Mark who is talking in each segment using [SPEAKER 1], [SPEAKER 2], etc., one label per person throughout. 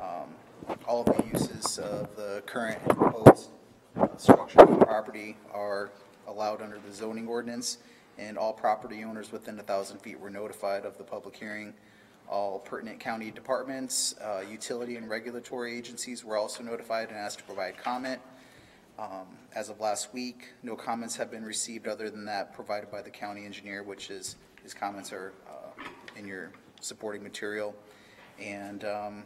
[SPEAKER 1] um, all of the uses of the current and proposed uh, structure of the property are allowed under the zoning ordinance, and all property owners within a thousand feet were notified of the public hearing. All pertinent county departments, uh, utility and regulatory agencies were also notified and asked to provide comment. Um, As of last week, no comments have been received other than that provided by the county engineer, which is, his comments are uh, in your supporting material. And um,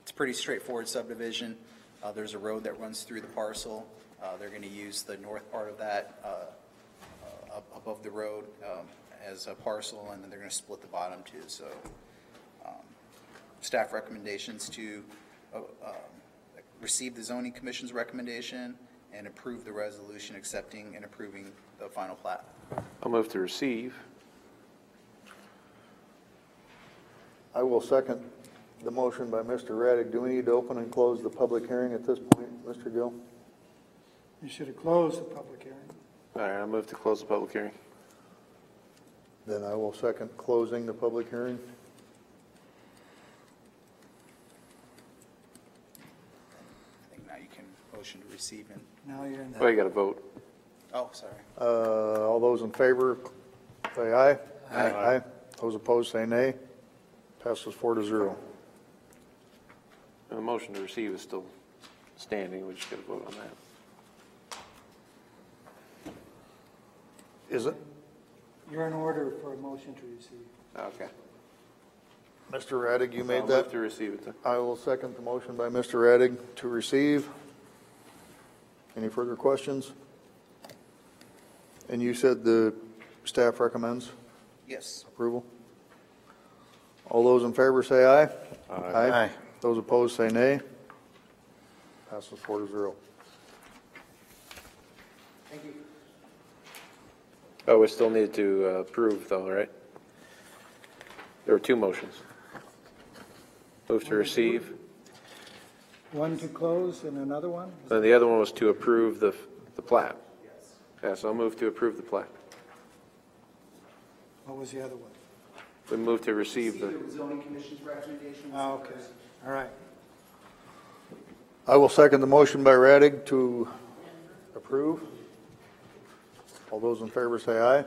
[SPEAKER 1] it's a pretty straightforward subdivision. Uh, There's a road that runs through the parcel. Uh, They're going to use the north part of that uh, uh, up above the road um, as a parcel, and then they're going to split the bottom too. So um, staff recommendations to uh, um, receive the zoning commission's recommendation and approve the resolution accepting and approving the final plat.
[SPEAKER 2] I'll move to receive.
[SPEAKER 3] I will second the motion by Mr. Raddick. Do we need to open and close the public hearing at this point, Mr. Gill?
[SPEAKER 4] You should have closed the public hearing.
[SPEAKER 2] All right, I'll move to close the public hearing.
[SPEAKER 3] Then I will second closing the public hearing.
[SPEAKER 1] I think now you can motion to receive and,
[SPEAKER 4] Now you're in
[SPEAKER 2] Oh,
[SPEAKER 4] the,
[SPEAKER 2] you got to vote.
[SPEAKER 1] oh, sorry.
[SPEAKER 3] Uh, all those in favor, say aye. Aye. Those opposed, say nay. Passes four to zero.
[SPEAKER 2] The motion to receive is still standing. We just got to vote on that.
[SPEAKER 3] Is it?
[SPEAKER 4] you're in order for a motion to receive.
[SPEAKER 2] Okay.
[SPEAKER 3] Mr. Raddick, you made
[SPEAKER 2] I'll
[SPEAKER 3] that?
[SPEAKER 2] move to receive it then.
[SPEAKER 3] I will second the motion by Mr. Raddick to receive. Any further questions? And you said the staff recommends
[SPEAKER 1] Yes.
[SPEAKER 3] approval? All those in favor say aye. Aye. Those opposed say nay. Passes four to zero.
[SPEAKER 2] Oh, we still need to uh, approve though, right? There were two motions. Move to receive,
[SPEAKER 4] One to close and another one?
[SPEAKER 2] and the other one was to approve the, the plat. Yeah, so I'll move to approve the plat.
[SPEAKER 4] What was the other one?
[SPEAKER 2] We move to receive the,
[SPEAKER 1] zoning commission's recommendation.
[SPEAKER 4] Oh, okay, all right.
[SPEAKER 3] I will second the motion by Raddick to approve. All those in favor say aye.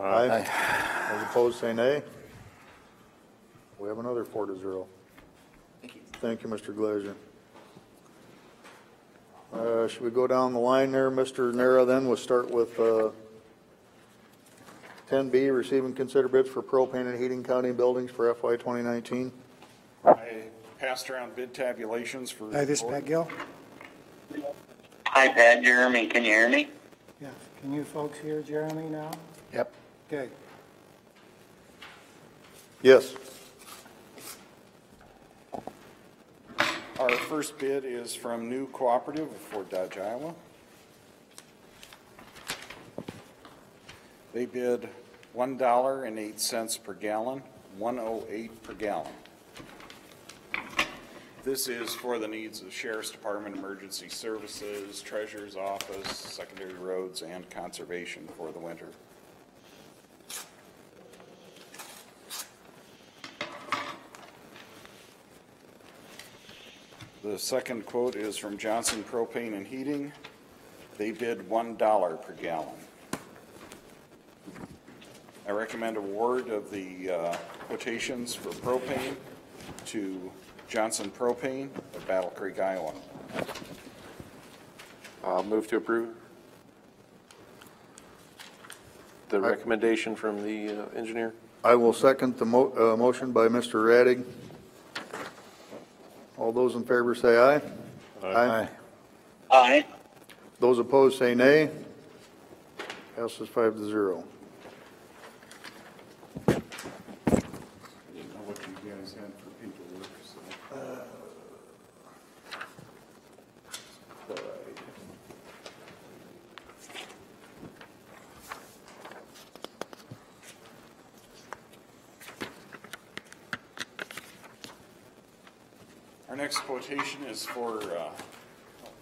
[SPEAKER 3] Aye. Those opposed say nay. We have another four to zero.
[SPEAKER 1] Thank you.
[SPEAKER 3] Thank you, Mr. Glazer. Uh, Should we go down the line there, Mr. Nara, then? We'll start with uh, 10B, receiving consider bids for propane and heating county buildings for FY 2019.
[SPEAKER 5] I passed around bid tabulations for.
[SPEAKER 4] Hi, Oh, this is Pat Gill.
[SPEAKER 6] Hi, Pat, Jeremy, can you hear me?
[SPEAKER 4] Yeah, can you folks hear Jeremy now?
[SPEAKER 3] Yep.
[SPEAKER 4] Okay,
[SPEAKER 3] Yes.
[SPEAKER 5] Our first bid is from New Cooperative of Fort Dodge, Iowa. They bid one dollar and eight cents per gallon, one oh eight per gallon. This is for the needs of Sheriff's Department, Emergency Services, Treasurer's Office, Secondary Roads, and Conservation for the winter. The second quote is from Johnson Propane and Heating. They bid $1 per gallon. I recommend award of the uh, quotations for propane to Johnson Propane of Battle Creek, Iowa.
[SPEAKER 2] I'll move to approve the recommendation from the uh, engineer.
[SPEAKER 3] I will second the mo, uh, motion by Mr. Radig. All those in favor say aye. Aye.
[SPEAKER 6] Hi.
[SPEAKER 3] Those opposed say nay. Passes five to zero.
[SPEAKER 5] I didn't know what you guys had for paperwork, so. Our next quotation is for uh,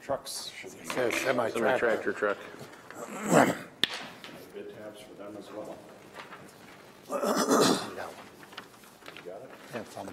[SPEAKER 5] trucks, should be
[SPEAKER 2] Semi tractor truck.
[SPEAKER 5] bid tabs for them as well.